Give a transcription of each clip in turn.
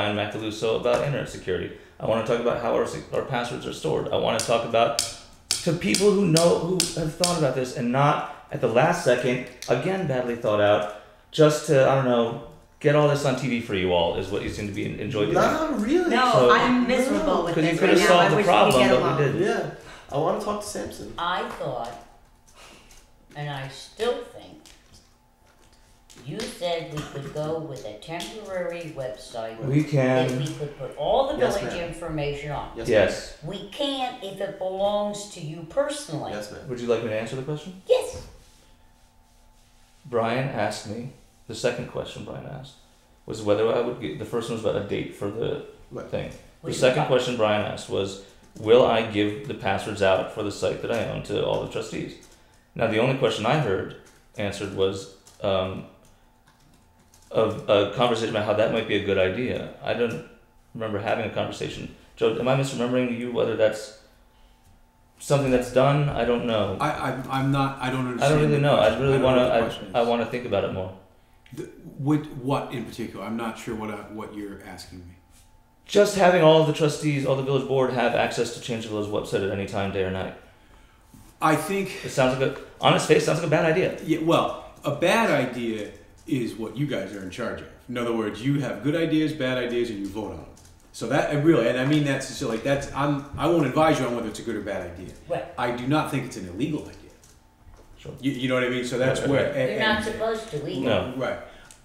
Ryan Macaluso about internet security. I want to talk about how our, sec- our passwords are stored. I want to talk about to people who know who have thought about this and not at the last second again badly thought out just to I don't know get all this on TV for you all is what you seem to be en- enjoying. doing. Not really. No, So- I'm miserable with Because you this could have right now. solved I the wish problem, we get but we along. didn't. Yeah. I want to talk to Samson. I thought, and I still think, you said we could go with a temporary website We that can we could put all the Yes, village ma'am. information on. Yes. yes. We can't if it belongs to you personally. Ma'am. Yes, ma'am. Would you like me to answer the question? Yes. Brian asked me the second question. Brian asked was whether I would get the first one was about a date for the Right. thing. The Which second is- question Brian asked was, "Will I give the passwords out for the site that I own to all the trustees?" Now, the only question I heard answered was um, of a conversation about how that might be a good idea. I don't remember having a conversation. Joe, am I misremembering you? Whether that's something that's done, I don't know. I, I'm, I'm not. I don't I understand. don't really the know. I question. really don't want know what the question to. I, I is. want to think about it more. The- What, what in particular? I'm not sure what I, what you're asking me. Just having all of the trustees, all the village board, have access to change the village website at any time, day or night. I think. It sounds like a on its face sounds like a bad idea. Yeah. Well, a bad idea is what you guys are in charge of. In other words, you have good ideas, bad ideas, and you vote on them. So that and really, and I mean that's so like that's I'm I won't advise you on whether it's a good or bad idea. Right. I do not think it's an illegal idea. Sure. You, you know what I mean? So that's Right, where right, and- You're not and- supposed to either. No. Right.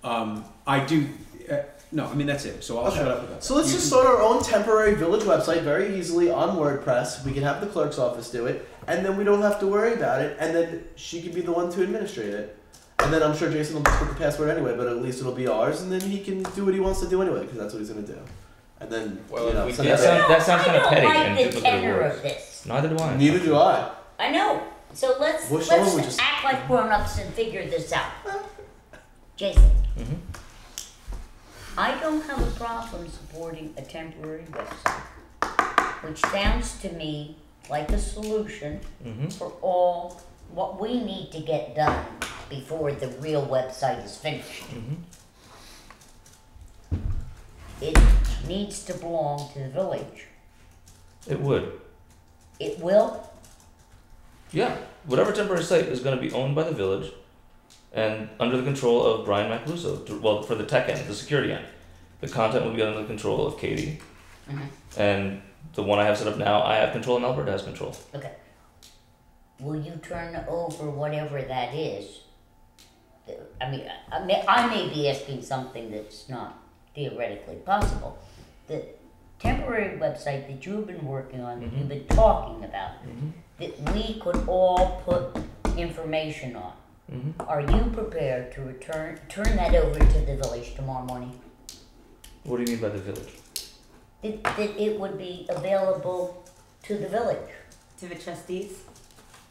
Um, I do. Uh, no, I mean that's it. So I'll Okay. shut up about that. So let's You just can- start our own temporary village website very easily on WordPress. We can have the clerk's office do it, and then we don't have to worry about it. And then she can be the one to administrate it. And then I'm sure Jason will just put the password anyway, but at least it'll be ours. And then he can do what he wants to do anyway, because that's what he's gonna do. And then Well, you if know, we some did other- That sound- that sounds I kinda don't petty like and the duplicative tenor words. of this. Neither do I. neither do I. I know. So let's Well, someone let's would just- act like grown-ups and figure this out. Jason, Mhm. Mm-hmm. I don't have a problem supporting a temporary website, which sounds to me like a solution Mhm. Mm-hmm. for all what we need to get done before the real website is finished. mm-hmm. It needs to belong to the village. It would. It will. Yeah. Whatever temporary site is going to be owned by the village and under the control of Brian Macaluso. to- Well, for the tech end, the security end. The content will be under the control of Katie. Mhm. And the one I have set up now, I have control and Alberta has control. Okay. Will you turn over whatever that is? I mean, I may, I may be asking something that's not theoretically possible. The temporary website that you've been working on, that you've Mm-hmm. been talking about, that we could all put information on. Mm-hmm. Are you prepared to return turn that over to the village tomorrow morning? What do you mean by the village? That, that it would be available to the village. To the trustees.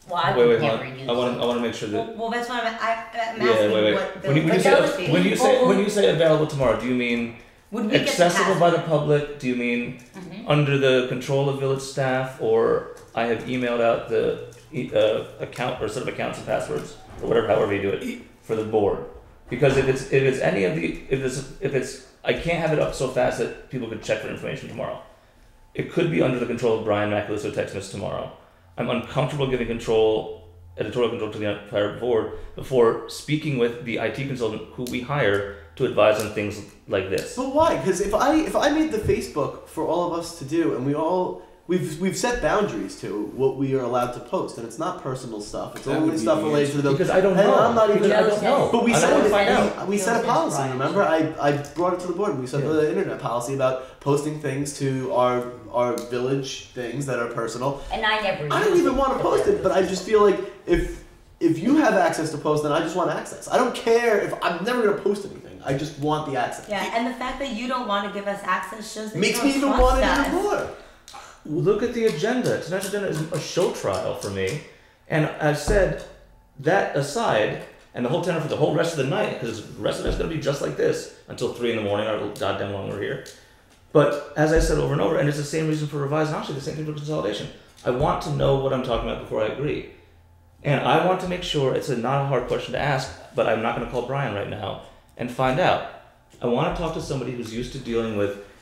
Well, I wait, would wait, hold never on. use I want it. to I want to make sure that Well, well, that's what I'm, I, I'm yeah, asking. wait, wait. What the when, you, when, you what those say, people- when you say would when you say available tomorrow, do you mean we get Mm-hmm. the accessible by pass? the public? Do you mean under the control of village staff? Or I have emailed out the e- uh, account or set of accounts and passwords or whatever, however you do it for the board. Because if it's if it's any of the if it's if it's I can't have it up so fast that people could check for information tomorrow. It could be under the control of Brian Macaluso Texmas tomorrow. I'm uncomfortable giving control, editorial control to the entire board before speaking with the IT consultant who we hire to advise on things like this. But why? Because if I if I made the Facebook for all of us to do, and we all we've we've set boundaries to what we are allowed to post, and it's not personal stuff. It's That would only be stuff the related to the Because I don't and know. I'm not even. Because I Joe don't know. says- But we I don't said want it- to find out. We, we set a Joe policy. Brian. Remember, I, I brought it to the board. and We set Yeah. the internet policy about posting things to our our village things that are personal. And I never. I don't use even want to post it, but I just feel like if if you have access to post, then I just want access. I don't care if I'm never gonna post anything. I just want the access. Yeah, and the fact that you don't want to give us access shows that Makes you me don't even trust want it us. even more. Look at the agenda. Tonight's agenda is a show trial for me. And I've said that aside, and the whole tenor for the whole rest of the night, because the rest of the night's going to be just like this until 3 in the morning, or goddamn long we're here. But as I said over and over, and it's the same reason for revise, and actually the same thing for consolidation. I want to know what I'm talking about before I agree. And I want to make sure it's a, not a hard question to ask, but I'm not going to call Brian right now and find out. I want to talk to somebody who's used to dealing with